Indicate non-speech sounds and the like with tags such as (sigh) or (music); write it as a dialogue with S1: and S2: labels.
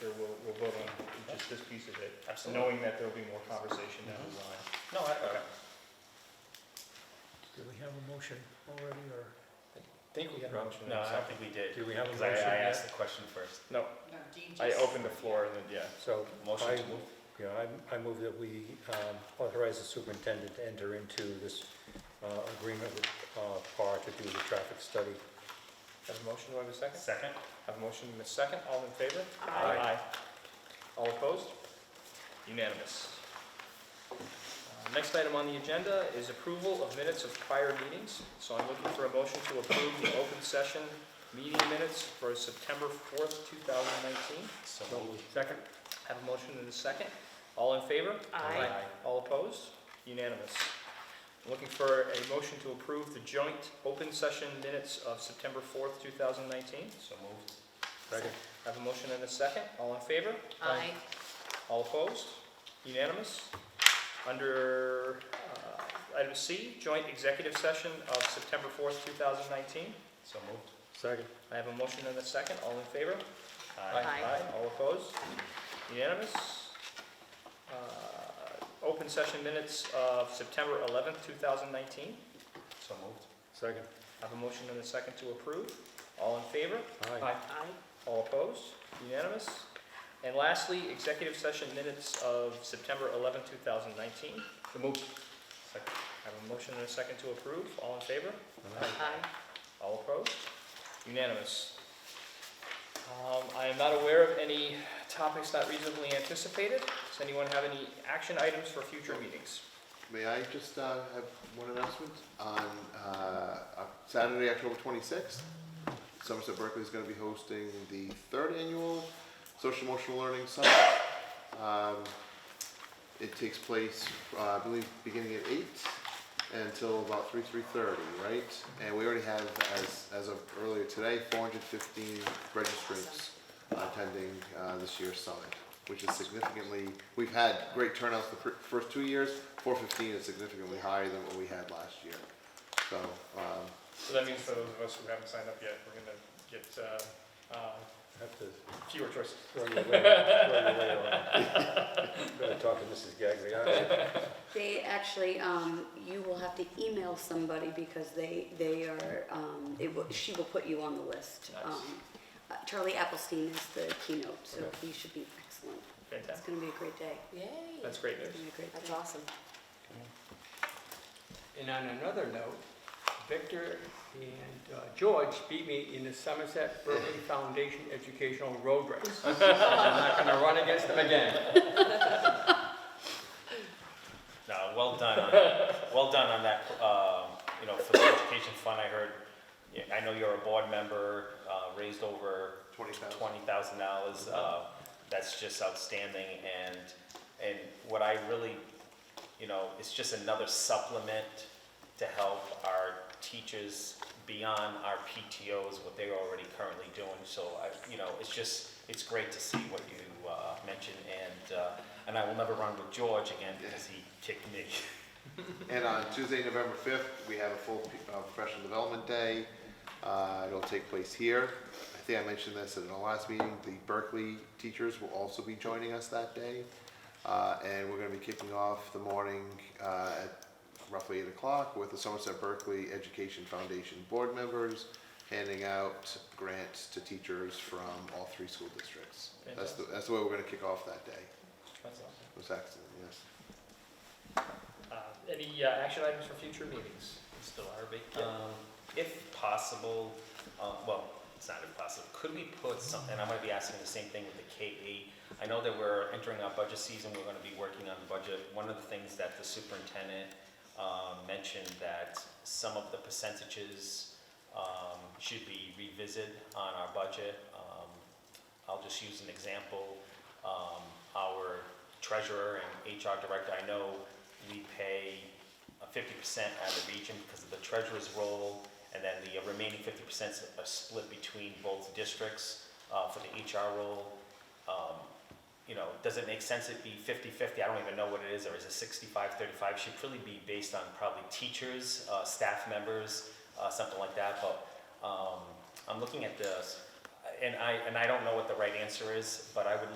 S1: sure uh, we'll, we'll vote on just this piece of it,
S2: Absolutely.
S1: knowing that there'll be more conversation down the line.
S2: No, I, okay.
S3: Do we have a motion already, or
S1: I Think we had a motion.
S2: No, I don't think we did,
S3: do we have a
S2: because
S3: motion
S2: I, I
S3: yet?
S2: asked the question first.
S4: No, Dean
S2: I
S4: just-
S2: opened the floor and then, yeah,
S3: So,
S2: motion to
S3: I-
S2: move.
S3: yeah, I, I move that we um, authorize the superintendent to enter into this uh, agreement with uh, PAR to do the traffic study.
S1: Have a motion, do I have a second?
S2: Second?
S1: Have a motion and a second, all in favor?
S2: Aye.
S1: All opposed? Unanimous. Uh, Next item on the agenda is approval of minutes of prior meetings. So I'm looking for a motion to approve the open session meeting minutes for September 4th, 2019.
S2: So
S1: Second. Have a motion and a second. All in favor?
S4: Aye.
S1: All opposed? Unanimous. I'm Looking for a motion to approve the joint open session minutes of September 4th, 2019.
S2: So moved.
S3: Second.
S1: Have a motion and a second. All in favor?
S4: Aye.
S1: All opposed? Unanimous? Under uh, item C, joint executive session of September 4th, 2019.
S2: So moved.
S3: Second.
S1: I have a motion and a second. All in favor?
S2: Aye.
S4: Aye.
S1: All opposed? Unanimous? Uh, Open session minutes of September 11th, 2019.
S2: So moved.
S3: Second.
S1: I have a motion and a second to approve. All in favor?
S3: Aye.
S4: Aye.
S1: All opposed? Unanimous? And lastly, executive session minutes of September 11th, 2019.
S2: So moved. Second.
S1: I have a motion and a second to approve. All in favor?
S4: Aye.
S1: All opposed? Unanimous. Um, I am not aware of any topics not reasonably anticipated. Does anyone have any action items for future meetings?
S5: May I just uh, have one announcement? On uh, uh, Saturday, October 26th, Somerset Berkeley is going to be hosting the third annual Social Emotional Learning Summit. Um, It takes place, uh, I believe, beginning at eight until about 3, 3:30, right? And we already have, as as of earlier today, 415 registrants attending uh, this year's summit, which is significantly, we've had great turnouts the fir- first two years. Four fifteen is significantly higher than what we had last year. So, um,
S1: So that means for those of us who haven't signed up yet, we're going to get uh,
S3: Have to
S1: fewer choices.
S3: throw your way, throw your way around. (laughs) Better talk to Mrs. Gagliano.
S6: They actually, um, you will have to email somebody because they, they are, um, it will, she will put you on the list.
S1: Nice.
S6: Um, uh, Charlie Applestein is the keynote, so
S3: Okay.
S6: he should be excellent. It's
S1: Fantastic.
S6: gonna be a great day.
S4: Yay.
S1: That's great
S6: It's
S1: news.
S6: gonna be a great
S4: That's
S6: day.
S4: awesome.
S7: And on another note, Victor and uh, George beat me in the Somerset Berkeley Foundation Educational Road Race. I'm not gonna run against them again.
S2: No, well done on, well done on that, um, you know, for the education fund, I heard, yeah, I know you're a board member, uh, raised over
S5: twenty thousand.
S2: twenty thousand dollars, uh, that's just outstanding, and, and what I really, you know, it's just another supplement to help our teachers beyond our PTOs, what they're already currently doing, so I, you know, it's just, it's great to see what you, uh, mentioned, and, uh, and I will never run with George again, because he kicked me. (laughs)
S5: And on Tuesday, November 5th, we have a full uh, professional development day. Uh, It'll take place here. I think I mentioned this at the last meeting, the Berkeley teachers will also be joining us that day. Uh, And we're going to be kicking off the morning uh, at roughly 8 o'clock with the Somerset Berkeley Education Foundation board members handing out grants to teachers from all three school districts. That's the that's the way we're going to kick off that day.
S1: That's awesome.
S5: It was excellent, yes.
S1: Uh, Any uh, action items for future meetings?
S2: Still
S1: uh,
S2: Arby? Um, if possible, um, well, it's not impossible, could we put some, and I might be asking the same thing with the K eight. I know that we're entering our budget season, we're gonna be working on the budget. One of the things that the superintendent, um, mentioned that some of the percentages, um, should be revisited on our budget. Um, I'll just use an example, um, our treasurer and HR director, I know we pay fifty percent on the region because of the treasurer's role, and then the remaining fifty percent are split between both districts, uh, for the HR role. Um, you know, does it make sense it be 50/50? I don't even know what it is, or is it 65/35? Should really be based on probably teachers, uh, staff members, uh, something like that, but, um, I'm looking at this, and I, and I don't know what the right answer is, but I would